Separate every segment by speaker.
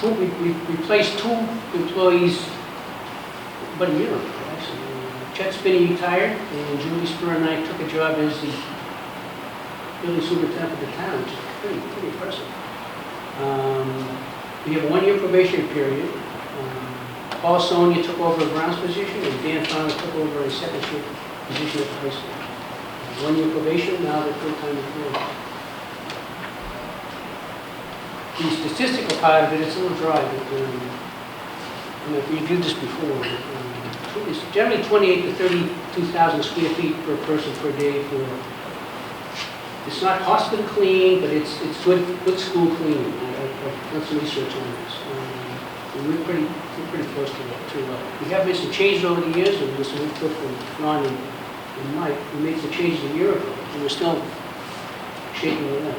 Speaker 1: two, we, we replaced two employees about a year ago, actually. Chet Spinney retired, and Julie Spur and I took a job as the building superintendent of the town, which is pretty, pretty impressive. Um, We have a one-year probation period. Um, Paul Sonia took over a grounds position, and Dan Fowler took over a second shift position at the high school. One-year probation, now they're full-time employees. The statistical part of it, it's a little dry, but, um, you know, we did this before. um, It's generally 28 to 32,000 square feet per person per day for, it's not hospital clean, but it's, it's good, good school clean. I- I- I've done some research on this. Um, and We're pretty, we're pretty close to that, too. Uh, We have made some changes over the years, and this we took from Ron and and Mike. We made some changes a year ago, and we're still shaking it up.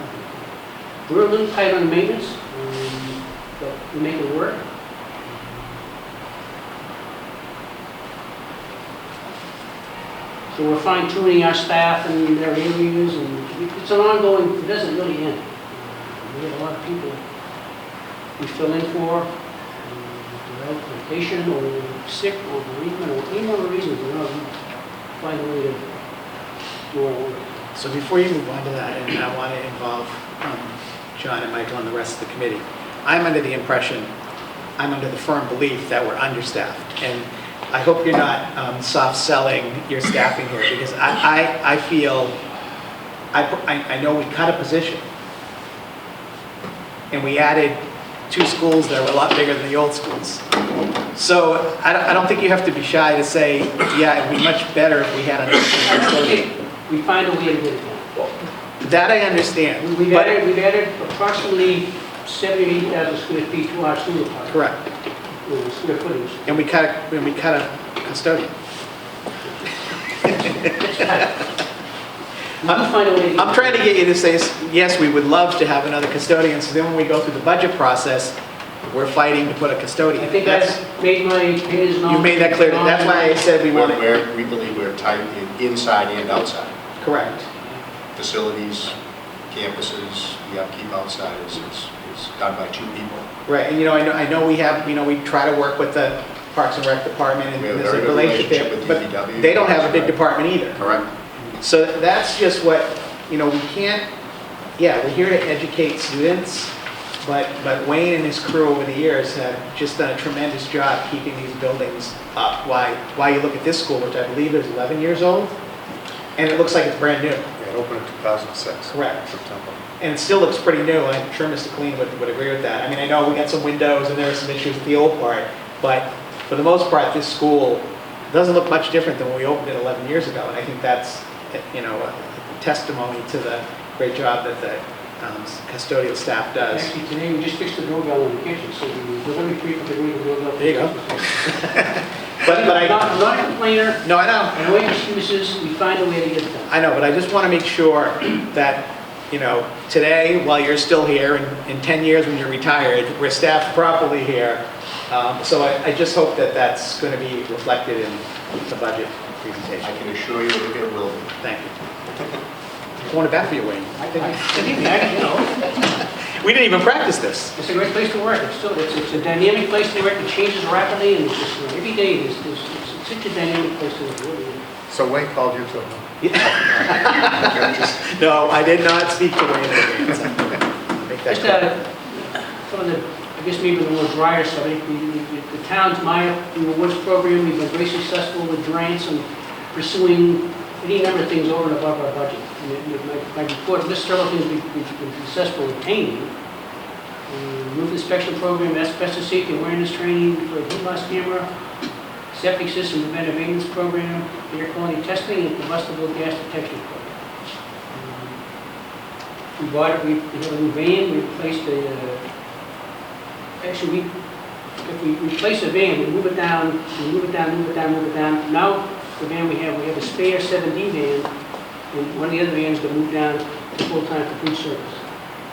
Speaker 1: We're a little tight on maintenance, um, but we make it work. So we're fine tuning our staff and their interviews and it's an ongoing, it doesn't really end. We have a lot of people we fill in for, um, they're out on vacation or sick or bereavement or any other reason, you know, we find a way to do our work.
Speaker 2: So before you move on to that, and I want to involve um, John and Michael and the rest of the committee, I'm under the impression, I'm under the firm belief that we're understaffed. And I hope you're not um, soft-selling your staffing here, because I, I, I feel, I, put- I I know we cut a position. And we added two schools that were a lot bigger than the old schools. So I don't, I don't think you have to be shy to say, yeah, it'd be much better if we had another facility.
Speaker 1: We find a way to get it done.
Speaker 2: That I understand,
Speaker 1: We've
Speaker 2: but,
Speaker 1: added, we've added approximately 78,000 square feet to our sewer park,
Speaker 2: correct,
Speaker 1: uh, square footage.
Speaker 2: and we cut, a- and we cut a custodian.
Speaker 1: We can find a way.
Speaker 2: I'm trying to get you to say, yes, we would love to have another custodian, so then when we go through the budget process, we're fighting to put a custodian.
Speaker 1: I think
Speaker 2: That's-
Speaker 1: I've made my opinions known.
Speaker 2: You made that clear, that's why I said we
Speaker 3: We're-
Speaker 2: want it.
Speaker 3: We're, we believe we're tight in- inside and outside,
Speaker 2: Correct.
Speaker 3: facilities, campuses, the upkeep outside is, is is done by two people.
Speaker 2: Right, and you know, I know, I know we have, you know, we try to work with the Parks and Rec Department and
Speaker 3: We have a
Speaker 2: there's
Speaker 3: very
Speaker 2: a
Speaker 3: good
Speaker 2: relationship, E
Speaker 3: relationship with
Speaker 2: but
Speaker 3: DPW.
Speaker 2: they don't have a big department either.
Speaker 3: Correct.
Speaker 2: So that's just what, you know, we can't, yeah, we're here to educate students, but, but Wayne and his crew over the years have just done a tremendous job keeping these buildings up. Why, why you look at this school, which I believe is 11 years old, and it looks like it's brand new.
Speaker 4: It opened in 2006.
Speaker 2: Correct.
Speaker 4: September.
Speaker 2: And it still looks pretty new, and I'm sure Mr. Clean would, would agree with that. I mean, I know we got some windows and there are some issues with the old part, but for the most part, this school doesn't look much different than when we opened it 11 years ago. And I think that's, you know, a testimony to the great job that the um, custodial staff does.
Speaker 1: Actually, today we just fixed the doorbell in the kitchen, so we- we're going to treat the ring of the doorbell.
Speaker 2: There you go. But, but
Speaker 1: I'm not-
Speaker 2: I,
Speaker 1: I'm not a complainer,
Speaker 2: no, I know.
Speaker 1: I know excuses, we find a way to get it done.
Speaker 2: I know, but I just want to make sure that, you know, today, while you're still here, and in 10 years when you're retired, we're staffed properly here. Um, So I I just hope that that's going to be reflected in the budget
Speaker 3: I
Speaker 2: presentation.
Speaker 3: can assure you that it will be.
Speaker 2: Thank you. I want it back for you, Wayne.
Speaker 1: I, I, believe me, I, you know,
Speaker 2: We didn't even practice this.
Speaker 1: it's a great place to work, it's still, it's, it's a dynamic place to work, it changes rapidly, and it's just, you know, every day is, is, it's such a dynamic place to work.
Speaker 4: So Wayne called you too.
Speaker 2: No, I did not speak to Wayne in advance. I'll make that
Speaker 1: Just
Speaker 2: clear.
Speaker 1: uh, some of the, I guess maybe the more drier stuff, I think the- the the town's Meyer Rewards program, we've been very successful with grants and pursuing any number of things over and above our budget. And it- it- my- My report lists several things we've we've been successful in obtaining. Uh, Roof inspection program, asbestos safety awareness training for heat loss camera, septic system preventive maintenance program, air quality testing, and combustible gas detection program. Um, we bought it, we, we have a new van, we replaced the, uh, actually, we, if we replace the van, we move it down, we move it down, move it down, move it down. Now, the van we have, we have a spare seven D van, and one of the other vans gonna move down to full-time for food service.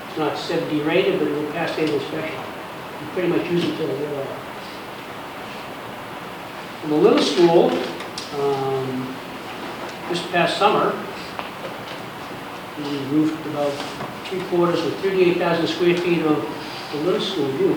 Speaker 1: It's not seven D rated, but it will pass state inspection. We pretty much use it till the year out. In the little school, um, this past summer, we roofed about three quarters of 38,000 square feet of the little school roof.